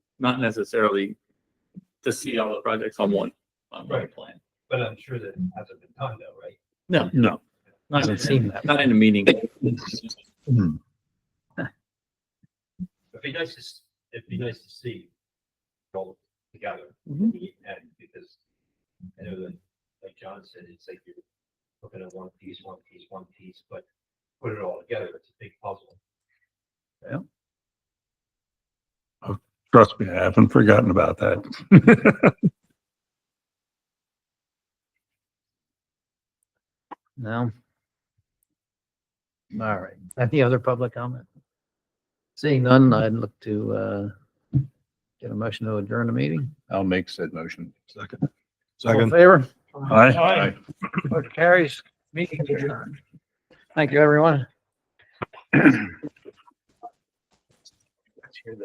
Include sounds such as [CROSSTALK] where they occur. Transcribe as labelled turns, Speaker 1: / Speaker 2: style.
Speaker 1: not necessarily to see all the projects on one, on one
Speaker 2: Right.
Speaker 1: plan.
Speaker 2: But I'm sure that hasn't been done though, right?
Speaker 1: No, no, not
Speaker 3: Doesn't seem that.
Speaker 1: not in a meeting.
Speaker 3: Hmm.
Speaker 2: It'd be nice to, s- it'd be nice to see it all together.
Speaker 1: Mhm.
Speaker 2: And because I know that, like John said, it's like you're looking at one piece, one piece, one piece, but put it all together, it's a big puzzle.
Speaker 3: Trust me, I haven't forgotten about that. [LAUGHS]
Speaker 4: No. All right. Any other public comment? Seeing none, I'd look to, uh, get a motion to adjourn the meeting.
Speaker 3: I'll make said motion. Second.
Speaker 4: All in
Speaker 3: Second.
Speaker 4: Favor,
Speaker 3: Aye. Aye.
Speaker 4: motion carries, meeting adjourned. Thank you, everyone.